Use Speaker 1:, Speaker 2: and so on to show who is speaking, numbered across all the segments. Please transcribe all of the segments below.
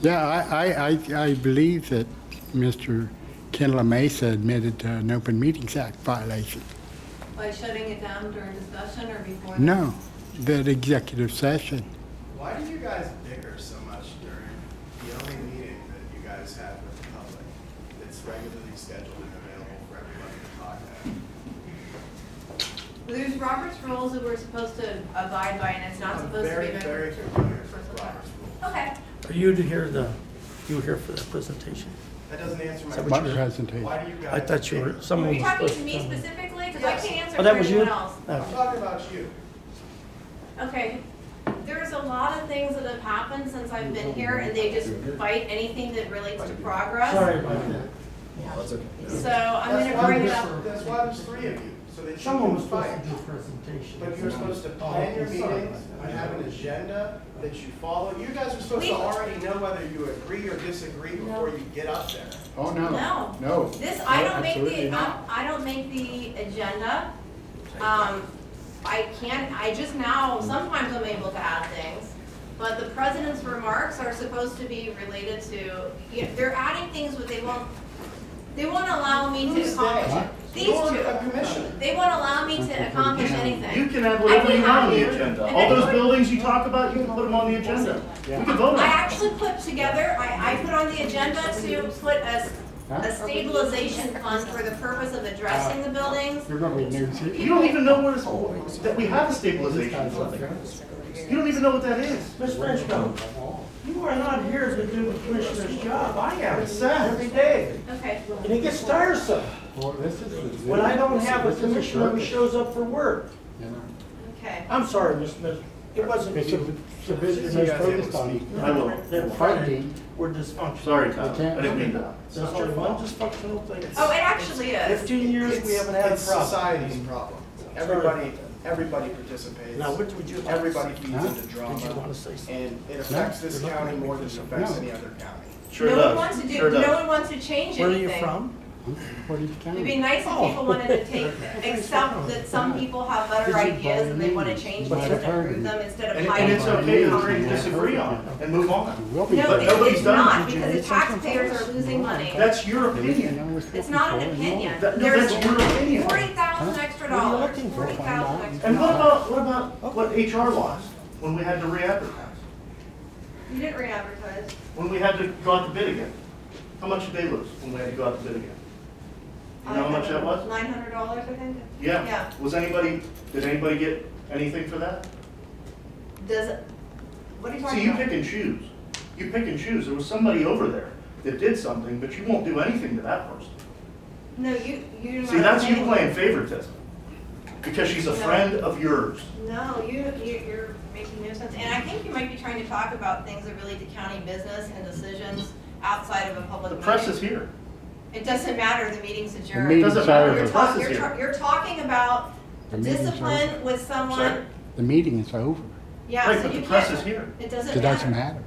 Speaker 1: Yeah, I, I, I- I believe that Mr. Kendall Mesa admitted to an Open Meetings Act violation.
Speaker 2: By shutting it down during discussion or before?
Speaker 1: No, that executive session.
Speaker 3: Why did you guys bicker so much during the only meeting that you guys have with the public? It's regularly scheduled and available for everybody to talk at.
Speaker 2: There's Robert's rules that we're supposed to abide by, and it's not
Speaker 3: I'm
Speaker 2: supposed to
Speaker 3: very,
Speaker 2: be.
Speaker 3: very
Speaker 2: member-
Speaker 3: familiar with
Speaker 2: personal
Speaker 3: Robert's
Speaker 2: time.
Speaker 3: rules.
Speaker 2: Okay,
Speaker 4: Are you to hear the, you were here for that presentation?
Speaker 3: That doesn't answer my
Speaker 1: My
Speaker 4: So what
Speaker 3: question.
Speaker 4: you-
Speaker 1: presentation.
Speaker 3: Why do you guys?
Speaker 4: I thought you were,
Speaker 3: bicker?
Speaker 2: are
Speaker 4: someone
Speaker 2: you
Speaker 4: was
Speaker 2: talking
Speaker 4: supposed
Speaker 2: to
Speaker 4: to
Speaker 2: me
Speaker 4: tell me.
Speaker 2: specifically? Because I
Speaker 3: Yes.
Speaker 2: can't answer
Speaker 4: Oh,
Speaker 2: for
Speaker 4: that was you?
Speaker 2: anyone else.
Speaker 3: I'm
Speaker 4: Oh,
Speaker 3: talking about you.
Speaker 2: Okay, there's a lot of things that have happened since I've been here, and they just fight anything that relates to
Speaker 4: Sorry
Speaker 2: progress.
Speaker 4: about that.
Speaker 2: So I'm
Speaker 3: That's
Speaker 2: gonna
Speaker 3: why
Speaker 2: bring it
Speaker 3: there's-
Speaker 2: up.
Speaker 3: That's why there's three of you, so that you
Speaker 4: Someone
Speaker 3: can
Speaker 4: was supposed to
Speaker 3: fight.
Speaker 4: do a presentation.
Speaker 3: But you're supposed to
Speaker 4: Oh,
Speaker 3: plan your
Speaker 4: I'm sorry
Speaker 3: meetings
Speaker 4: about that.
Speaker 3: and have an agenda that you follow. You guys are supposed
Speaker 2: We-
Speaker 3: to already know whether you agree or disagree before you get up there.
Speaker 1: Oh, no.
Speaker 2: No.
Speaker 1: No.
Speaker 2: This, I
Speaker 1: No,
Speaker 2: don't make
Speaker 1: absolutely
Speaker 2: the,
Speaker 1: not.
Speaker 2: I I don't make the agenda. Um, I can't, I just now, sometimes I'm able to add things. But the president's remarks are supposed to be related to, you know, they're adding things, but they won't, they won't allow me to
Speaker 3: Who's
Speaker 1: Huh?
Speaker 2: accomplish. These
Speaker 3: You're a
Speaker 2: two,
Speaker 3: commissioner.
Speaker 2: they won't allow me to accomplish anything.
Speaker 5: You can have whatever you want
Speaker 2: I
Speaker 5: on the
Speaker 2: can have-
Speaker 5: agenda.
Speaker 2: and
Speaker 5: All
Speaker 2: then
Speaker 5: those
Speaker 2: put-
Speaker 5: buildings you talk about, you can put them on the agenda. We can vote on
Speaker 2: I
Speaker 5: it.
Speaker 2: actually put together, I, I put on the agenda to put a, a stabilization fund for the purpose of addressing the buildings.
Speaker 1: You're gonna be news here.
Speaker 5: You don't even know what it's, that we have a stabilization fund. You don't even know what that is.
Speaker 4: Ms. Frenchco, you are not here to do the commissioner's job. I am.
Speaker 5: It's sad.
Speaker 4: Every day.
Speaker 2: Okay.
Speaker 4: And it gets tiresome
Speaker 1: Well, this is the-
Speaker 4: when I don't have a
Speaker 1: this is
Speaker 4: commissioner who
Speaker 1: circus,
Speaker 4: shows up for work.
Speaker 1: you know.
Speaker 2: Okay.
Speaker 4: I'm sorry, Ms. Smith. It wasn't
Speaker 1: It's a,
Speaker 4: you.
Speaker 1: it's a business
Speaker 3: You
Speaker 1: most
Speaker 3: guys able to
Speaker 1: focused
Speaker 3: speak?
Speaker 1: on.
Speaker 5: I will.
Speaker 4: They're
Speaker 1: Funding.
Speaker 4: We're dysfunctional.
Speaker 5: Sorry, Tom.
Speaker 1: I can't-
Speaker 5: I didn't mean that.
Speaker 4: It's just one dysfunctional thing.
Speaker 2: Oh, it actually is.
Speaker 4: Fifteen years, we
Speaker 3: It's-
Speaker 4: haven't had a
Speaker 3: It's
Speaker 4: problem.
Speaker 3: society's problem. Everybody, everybody participates.
Speaker 4: Now, what would you like to
Speaker 3: Everybody
Speaker 4: say?
Speaker 3: feeds
Speaker 1: Huh?
Speaker 3: into
Speaker 4: Did you
Speaker 3: drama,
Speaker 4: wanna say something?
Speaker 3: and it affects this
Speaker 4: You're looking
Speaker 3: county
Speaker 4: at me
Speaker 3: more than
Speaker 4: because
Speaker 3: it
Speaker 4: you're-
Speaker 3: affects
Speaker 1: No.
Speaker 3: any other county.
Speaker 5: Sure
Speaker 2: No one
Speaker 5: does.
Speaker 2: wants to do,
Speaker 5: Sure
Speaker 2: no one
Speaker 5: does.
Speaker 2: wants to change anything.
Speaker 4: Where are you from?
Speaker 1: What do you
Speaker 2: It'd be
Speaker 1: count?
Speaker 2: nice if
Speaker 5: Oh.
Speaker 2: people wanted to take, accept that some people have better
Speaker 1: Did you
Speaker 2: ideas and they
Speaker 1: buy
Speaker 2: wanna
Speaker 1: me?
Speaker 2: change
Speaker 1: Buy
Speaker 2: things
Speaker 1: the
Speaker 2: and
Speaker 1: party.
Speaker 2: improve them instead of
Speaker 5: And, and
Speaker 2: hiding.
Speaker 5: it's okay to agree and disagree on it and move on.
Speaker 1: Will be.
Speaker 2: No,
Speaker 5: But
Speaker 2: it-
Speaker 5: nobody's
Speaker 2: it's
Speaker 5: done it.
Speaker 2: not,
Speaker 4: Did you
Speaker 2: because the
Speaker 4: read something
Speaker 2: taxpayers
Speaker 4: from
Speaker 2: are losing money.
Speaker 5: That's your opinion.
Speaker 2: It's not an opinion.
Speaker 5: That- no,
Speaker 2: There's
Speaker 5: that's your opinion.
Speaker 2: Forty thousand extra
Speaker 4: What are you
Speaker 2: dollars,
Speaker 4: looking for?
Speaker 2: forty thousand extra.
Speaker 5: And what about, what about what HR lost when we had to re-advertise?
Speaker 2: You didn't re-advertise.
Speaker 5: When we had to go out to bid again? How much did they lose when we had to go out to bid again? You know how much that was?
Speaker 2: Nine hundred dollars, I think.
Speaker 5: Yeah. Was anybody, did anybody get anything for that?
Speaker 2: Does, what are you
Speaker 5: See,
Speaker 2: talking
Speaker 5: you
Speaker 2: about?
Speaker 5: pick and choose. You pick and choose. There was somebody over there that did something, but you won't do anything to that person.
Speaker 2: No, you, you didn't.
Speaker 5: See, that's you
Speaker 2: understand.
Speaker 5: playing favoritism. Because she's a friend of yours.
Speaker 2: No, you, you, you're making no sense, and I think you might be trying to talk about things that relate to county business and decisions outside of a public
Speaker 5: The
Speaker 2: meeting.
Speaker 5: press is here.
Speaker 2: It doesn't matter, the meeting's adjourned.
Speaker 1: meeting-
Speaker 5: Doesn't
Speaker 1: Sorry.
Speaker 5: matter.
Speaker 2: You're
Speaker 5: The
Speaker 2: talk-
Speaker 5: press is
Speaker 2: you're
Speaker 5: here.
Speaker 2: tra- You're talking about
Speaker 1: The meeting's
Speaker 2: discipline
Speaker 1: over.
Speaker 2: with
Speaker 5: Sorry?
Speaker 2: someone,
Speaker 1: The meeting is over.
Speaker 2: yeah,
Speaker 5: Right,
Speaker 2: so
Speaker 5: but
Speaker 2: you
Speaker 5: the press
Speaker 2: can't-
Speaker 5: is here.
Speaker 2: It doesn't
Speaker 1: It doesn't
Speaker 2: matter.
Speaker 1: matter.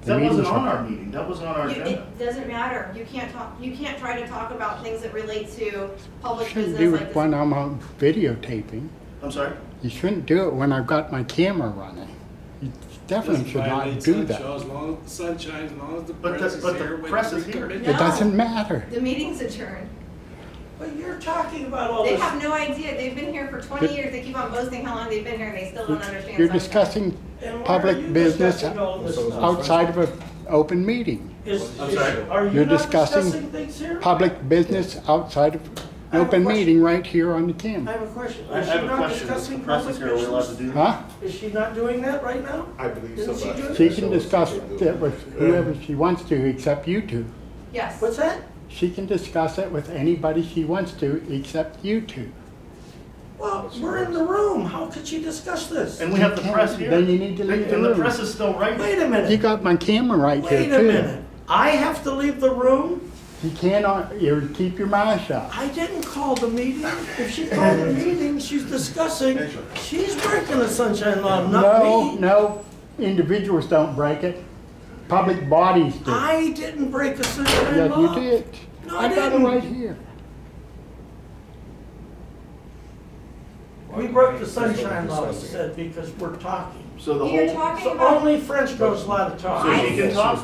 Speaker 1: The
Speaker 5: That wasn't
Speaker 1: meeting's
Speaker 5: on
Speaker 1: over.
Speaker 5: our meeting. That wasn't on our
Speaker 2: You-
Speaker 5: agenda.
Speaker 2: It doesn't matter, you can't talk, you can't try to talk about things that relate to public
Speaker 1: Shouldn't
Speaker 2: business
Speaker 1: do
Speaker 2: like
Speaker 1: it
Speaker 2: this.
Speaker 1: when I'm on videotaping.
Speaker 5: I'm sorry?
Speaker 1: You shouldn't do it when I've got my camera running. You definitely should not do that.
Speaker 6: As long, sunshine, as long as the
Speaker 5: But the-
Speaker 6: press is
Speaker 5: but the
Speaker 6: here. when
Speaker 5: press
Speaker 6: we
Speaker 5: is here.
Speaker 6: commit-
Speaker 1: It doesn't matter.
Speaker 2: The meeting's adjourned.
Speaker 4: But you're talking about
Speaker 5: Oh,
Speaker 4: all
Speaker 2: They
Speaker 4: this.
Speaker 2: have no idea, they've been here for twenty
Speaker 1: But-
Speaker 2: years, they keep on boasting how long they've been here, and they still don't understand.
Speaker 1: You're
Speaker 2: something.
Speaker 1: discussing
Speaker 4: And why are you
Speaker 1: public business
Speaker 4: discussing all this stuff?
Speaker 1: outside of an open meeting.
Speaker 4: Is,
Speaker 5: I'm
Speaker 4: is-
Speaker 5: sorry.
Speaker 4: are you
Speaker 1: You're
Speaker 4: not
Speaker 1: discussing
Speaker 4: discussing things here?
Speaker 1: Public business outside of
Speaker 4: I
Speaker 1: an
Speaker 4: have a
Speaker 1: open
Speaker 4: question.
Speaker 1: meeting right here on the
Speaker 4: I
Speaker 1: camera.
Speaker 4: have a question.
Speaker 5: I I
Speaker 4: Is she
Speaker 5: have a
Speaker 4: not
Speaker 5: question. The
Speaker 4: discussing
Speaker 5: press is
Speaker 4: public
Speaker 5: here. Are we allowed to
Speaker 4: business?
Speaker 5: do that?
Speaker 1: Huh?
Speaker 4: Is she not doing that right now?
Speaker 7: I believe so.
Speaker 4: Didn't she
Speaker 7: but-
Speaker 4: do it?
Speaker 1: She can discuss it with whoever she wants to, except you two.
Speaker 2: Yes.
Speaker 4: What's that?
Speaker 1: She can discuss it with anybody she wants to, except you two.
Speaker 4: Well, we're in the room. How could she discuss this?
Speaker 5: And we have the press here.
Speaker 1: Then you need to leave the
Speaker 5: And the
Speaker 1: room.
Speaker 5: press is still right
Speaker 4: Wait a
Speaker 1: You
Speaker 4: minute.
Speaker 1: got my camera right here
Speaker 4: Wait a minute.
Speaker 1: too.
Speaker 4: I have to leave the room?
Speaker 1: You cannot, you keep your mouth shut.
Speaker 4: I didn't call the meeting. If she called the meeting, she's discussing, she's breaking the sunshine law,
Speaker 1: No,
Speaker 4: not me.
Speaker 1: no, individuals don't break it. Public bodies do.
Speaker 4: I didn't break the sunshine
Speaker 1: Yes, you
Speaker 4: law.
Speaker 1: did.
Speaker 4: No, I
Speaker 1: I got it
Speaker 4: didn't.
Speaker 1: right here.
Speaker 4: We broke the sunshine law, you said, because we're talking.
Speaker 5: So the
Speaker 2: You're
Speaker 5: whole,
Speaker 2: talking
Speaker 4: So
Speaker 2: about.
Speaker 4: only French goes allowed to talk.
Speaker 5: so she can talk